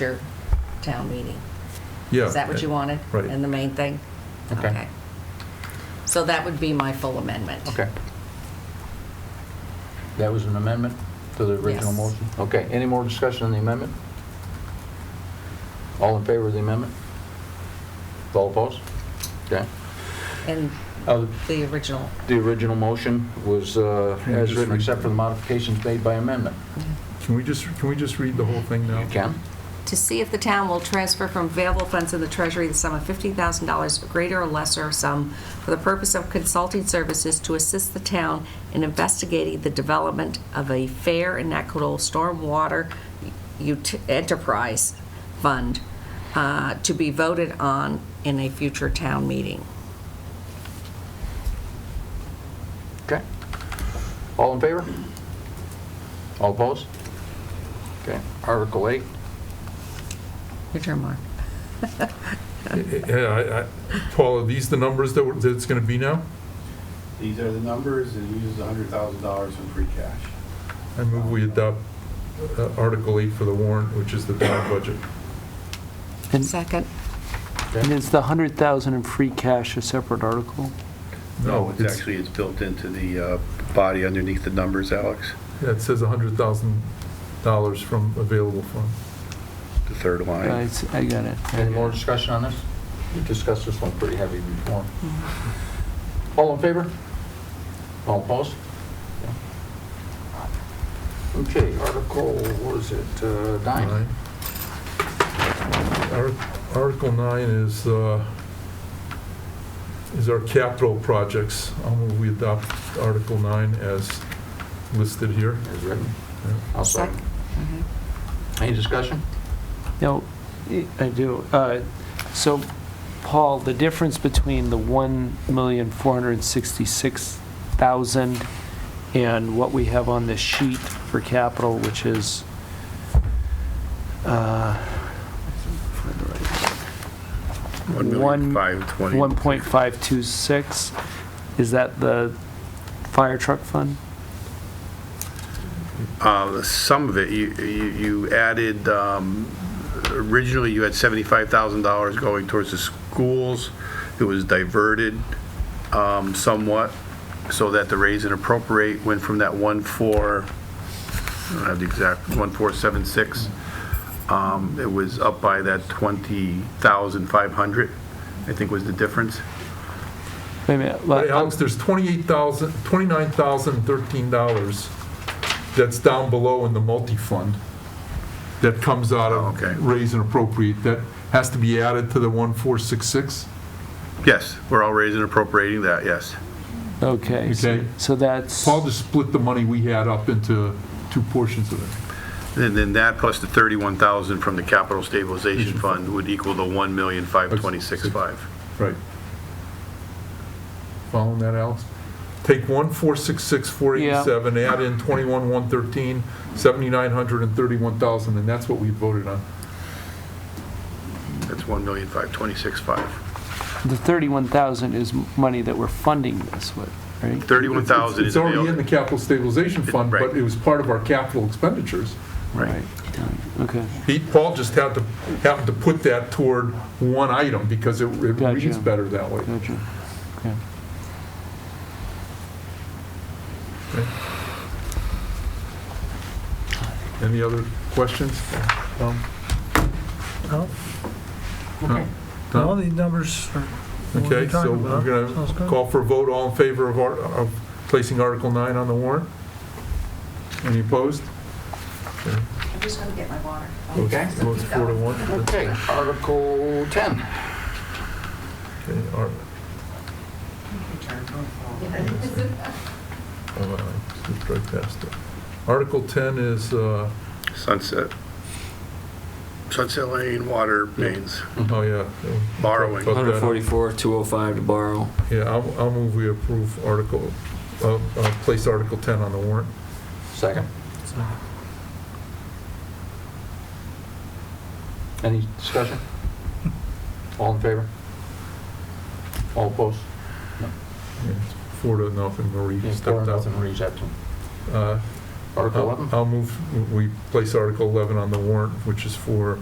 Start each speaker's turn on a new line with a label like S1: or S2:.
S1: your town meeting.
S2: Yeah. Uh,
S1: Is that what you wanted?
S2: Right.
S1: And the main thing?
S3: Okay.
S1: So that would be my full amendment.
S3: Okay. That was an amendment to the original
S1: Yes.
S3: motion? Okay, any more discussion on the amendment? All in favor of the amendment? All opposed? Okay.
S1: And
S3: Uh,
S1: the original,
S3: The original motion was uh,
S2: Can you
S3: as
S2: just
S3: written,
S2: read-
S3: except for the modifications made by amendment.
S2: Can we just, can we just read the whole thing now?
S3: You can?
S1: to see if the town will transfer from available funds in the treasury the sum of $50,000, or greater or lesser sum, for the purpose of consulting services to assist the town in investigating the development of a fair and equitable stormwater ut- enterprise fund uh, to be voted on in a future town meeting.
S3: Okay. All in favor? All opposed? Okay, Article 8.
S1: Your turn, Mark.
S2: Yeah, I- I- Paul, are these the numbers that we're- that it's going to be now?
S4: These are the numbers, it uses hundred thousand dollars in free cash.
S2: I move we adopt uh, Article 8 for the warrant, which is the town budget.
S5: And
S1: Second.
S5: and is the 100,000 in free cash a separate article?
S4: No, it's actually, it's built into the uh, body underneath the numbers, Alex,
S2: Yeah, it says $100,000 from available fund.
S4: the third
S5: I
S4: line.
S5: s- I got it.
S3: Any more discussion on this? We discussed this one pretty heavy before. All in favor? All opposed? Okay, Article, what is it, uh, nine?
S2: Nine. Ar- Article 9 is, uh, is our capital projects. I'll move we adopt Article 9 as listed here.
S3: Is written.
S2: Yeah.
S3: I'll second.
S1: Okay.
S3: Any discussion?
S5: No, I- I do. Uh, So, Paul, the difference between the 1,466,000 and what we have on this sheet for capital, which is, uh, find the right One-
S4: five twenty.
S5: 1.526, is that the fire truck fund?
S4: Uh, Some of it, you, you you added, um, originally you had $75,000 going towards the schools. It was diverted um, somewhat so that the raise and appropriate went from that 1.4, I don't have the exact, 1.476. Um, It was up by that 20,500, I think was the difference.
S5: Wait a minute.
S2: But
S5: let-
S2: Alex, there's 28,000, $29,013 that's down below in the multi-fund that comes out
S4: Oh, okay.
S2: of raise and appropriate, that has to be added to the 1466?
S4: Yes, we're all raising and appropriating that, yes.
S5: Okay, so
S2: Okay.
S5: so that's,
S2: Paul just split the money we had up into two portions of it.
S4: And then that plus the 31,000 from the capital stabilization
S2: Mm-hmm.
S4: fund would equal the 1,526,500.
S2: Right. Following that, Alex? Take 1466, 487, add in 21,113, 7,900, and 31,000, and that's what we voted on.
S4: That's 1,526,500.
S5: the 31,000 is money that we're funding this with, right?
S4: 31,000
S2: It's
S4: is
S2: already in the
S4: available.
S2: capital stabilization fund, but
S4: Right.
S2: it was part of our capital expenditures.
S4: Right.
S5: Okay,
S2: He, Paul just had to, happened to put that toward one item because it it
S5: Gotcha.
S2: reads better that way.
S5: gotcha. Okay.
S2: Any other questions? Um,
S6: No,
S2: no?
S6: all
S2: No?
S6: these numbers are what
S2: Okay,
S6: we're
S2: so
S6: talking
S2: we're
S6: about.
S2: going
S6: Sounds
S2: to
S6: good.
S2: call for a vote, all in favor of, our- of placing Article 9 on the warrant? Any opposed?
S1: I'm just going to get my water.
S2: Votes-
S3: Okay.
S2: Votes four to one.
S3: Okay, Article 10.
S2: Okay, all right. Oh, wow, slipped right past it. Article 10 is, uh,
S4: Sunset. Sunset Lane water mains.
S2: oh, yeah.
S4: Borrowing.
S2: About that.
S7: 144, 205 to borrow.
S2: Yeah, I'll, I'll move we approve Article, uh, uh, place Article 10 on the warrant.
S3: Second. Any discussion? All in favor? All opposed?
S2: Yeah, it's Four to nothing, Marie
S3: Yeah, Four
S2: stepped
S3: and
S2: out.
S3: nothing, Marie's absent.
S2: Uh,
S3: Article
S2: I'll-
S3: 11?
S2: I'll move, we place Article 11 on the warrant, which is for